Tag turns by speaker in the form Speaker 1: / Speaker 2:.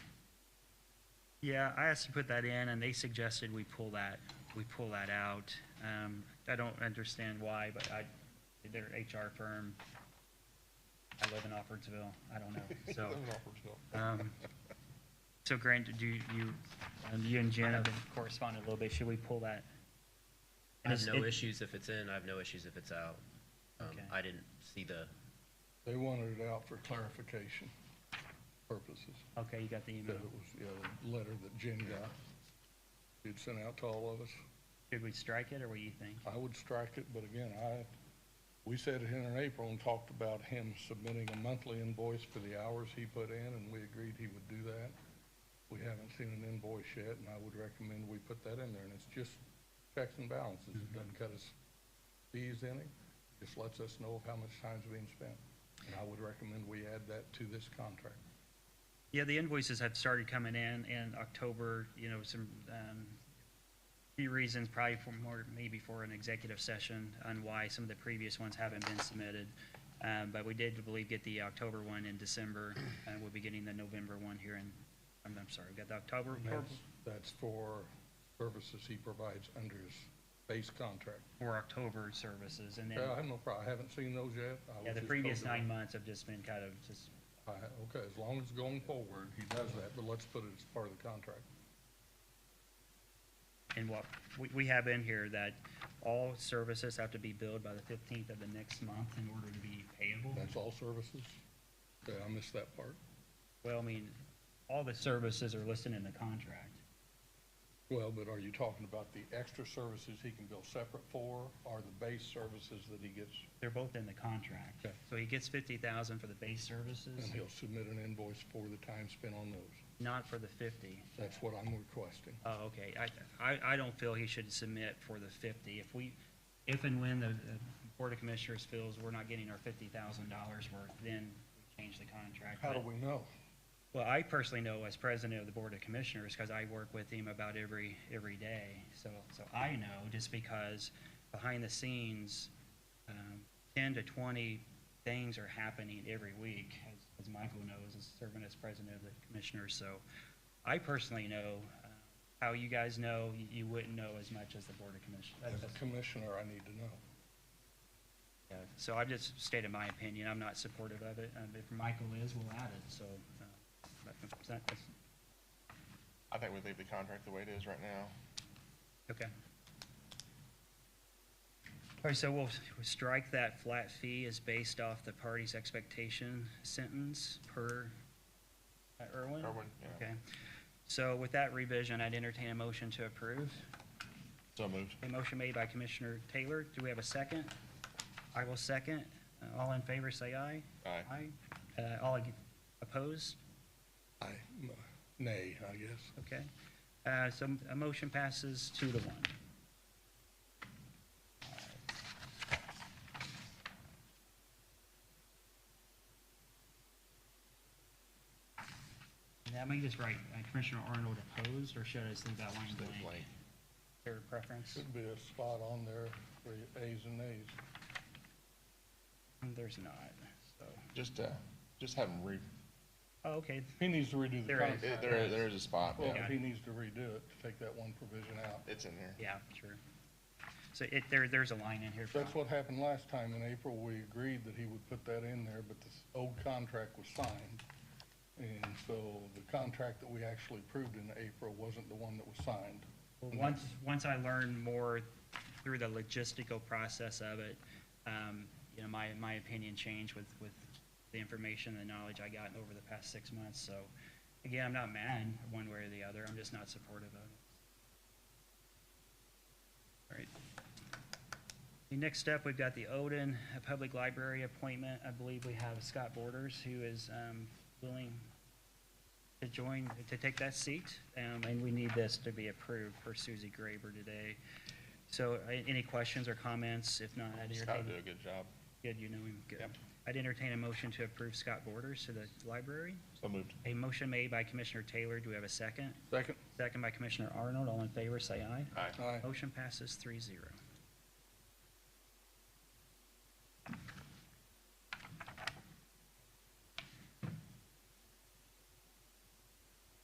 Speaker 1: Yeah, I asked to put that in, and they suggested we pull that, we pull that out. Um, I don't understand why, but I, they're an HR firm. I live in Offordsville, I don't know, so. um, So Grant, do you, you- um, you and Jen have been corresponding a little bit, should we pull that?
Speaker 2: I have
Speaker 1: Is
Speaker 2: no
Speaker 1: it-
Speaker 2: issues if it's in, I have no issues if it's out. Um,
Speaker 1: Okay.
Speaker 2: I didn't see the,
Speaker 3: They wanted it out for clarification purposes,
Speaker 1: Okay, you got the
Speaker 3: that
Speaker 1: email.
Speaker 3: it was, yeah, the letter that Jen got. She'd sent out to all of us.
Speaker 1: Should we strike it, or what do you think?
Speaker 3: I would strike it, but again, I, we said it here in April and talked about him submitting a monthly invoice for the hours he put in, and we agreed he would do that. We haven't seen an invoice yet, and I would recommend we put that in there, and it's just checks and balances. It doesn't cut us fees any, just lets us know of how much time's being spent. And I would recommend we add that to this contract.
Speaker 1: Yeah, the invoices have started coming in in October, you know, some, um, few reasons, probably for more, maybe for an executive session on why some of the previous ones haven't been submitted. Um, but we did, I believe, get the October one in December, and we'll be getting the November one here in, I'm, I'm sorry, we got the October,
Speaker 3: And That's, that's for services he provides under his base contract.
Speaker 1: for October services, and then,
Speaker 3: Yeah, I have no problem. I haven't seen those yet. I was
Speaker 1: yeah, the
Speaker 3: just
Speaker 1: previous
Speaker 3: told to-
Speaker 1: nine months have just been kind of just,
Speaker 3: I, okay, as long as going forward, he does that, but let's put it as part of the contract.
Speaker 1: and what, we, we have in here that all services have to be billed by the fifteenth of the next month in order to be payable.
Speaker 3: That's all services? Okay, I missed that part.
Speaker 1: Well, I mean, all the services are listed in the contract.
Speaker 3: Well, but are you talking about the extra services he can bill separate for, or the base services that he gets?
Speaker 1: They're both in the contract.
Speaker 3: Okay.
Speaker 1: So he gets fifty thousand for the base services,
Speaker 3: And he'll submit an invoice for the time spent on those.
Speaker 1: not for the fifty.
Speaker 3: That's what I'm requesting.
Speaker 1: Oh, okay. I, I, I don't feel he should submit for the fifty. If we, if and when the the Board of Commissioners feels we're not getting our fifty thousand dollars worth, then we change the contract.
Speaker 3: How do
Speaker 1: But-
Speaker 3: we know?
Speaker 1: Well, I personally know as president of the Board of Commissioners, because I work with him about every, every day. So, so I know just because behind the scenes, um, ten to twenty things are happening every week, as, as Michael knows, as serving as president of the commissioners. So I personally know uh, how you guys know, you- you wouldn't know as much as the Board of
Speaker 3: As
Speaker 1: Commissioners.
Speaker 3: a commissioner, I need to know.
Speaker 1: So I've just stated my opinion. I'm not supportive of it. Um, If Michael is, we'll add it, so. uh, that's- that's-
Speaker 4: I think we leave the contract the way it is right now.
Speaker 1: Okay. All right, so we'll we'll strike that flat fee is based off the party's expectation sentence per uh, Irwin?
Speaker 4: Irwin, yeah.
Speaker 1: Okay. So with that revision, I'd entertain a motion to approve.
Speaker 4: So moved.
Speaker 1: A motion made by Commissioner Taylor. Do we have a second? I will second. Uh, All in favor, say aye.
Speaker 4: Aye.
Speaker 1: Aye. Uh, All ag- opposed?
Speaker 3: I, nay, I guess.
Speaker 1: Okay. Uh, So a motion passes two to one. And That may just write uh, Commissioner Arnold opposed, or should I just leave that one blank? Your preference?
Speaker 3: Should be a spot on there for A's and A's.
Speaker 1: There's not, so,
Speaker 4: Just, uh, just have them re,
Speaker 1: oh, okay,
Speaker 3: He needs to redo the
Speaker 1: There is.
Speaker 3: contract.
Speaker 4: it- there, there is a spot,
Speaker 3: Well,
Speaker 4: yeah.
Speaker 3: he needs to redo it, to take that one provision out.
Speaker 4: It's in there.
Speaker 1: yeah, sure. So it, there, there's a line in here. for-
Speaker 3: That's what happened last time in April. We agreed that he would put that in there, but this old contract was signed. And so the contract that we actually approved in April wasn't the one that was signed.
Speaker 1: Well, Once, once I learned more through the logistical process of it, um, you know, my, my opinion changed with, with the information, the knowledge I gotten over the past six months, so, again, I'm not mad one way or the other, I'm just not supportive of it. All right. The next up, we've got the Odin uh, Public Library appointment, I believe we have Scott Borders, who is, um, willing to join, to take that seat, um, and we need this to be approved for Susie Graber today. So, a- any questions or comments? If not, I'd
Speaker 4: Just gotta
Speaker 1: entertain.
Speaker 4: do a good job.
Speaker 1: Good, you know him, good.
Speaker 4: Yep.
Speaker 1: I'd entertain a motion to approve Scott Borders to the library.
Speaker 4: So moved.
Speaker 1: A motion made by Commissioner Taylor, do we have a second?
Speaker 3: Second.
Speaker 1: Second by Commissioner Arnold, all in favor, say aye.
Speaker 4: Aye.
Speaker 3: Aye.
Speaker 1: Motion passes three zero.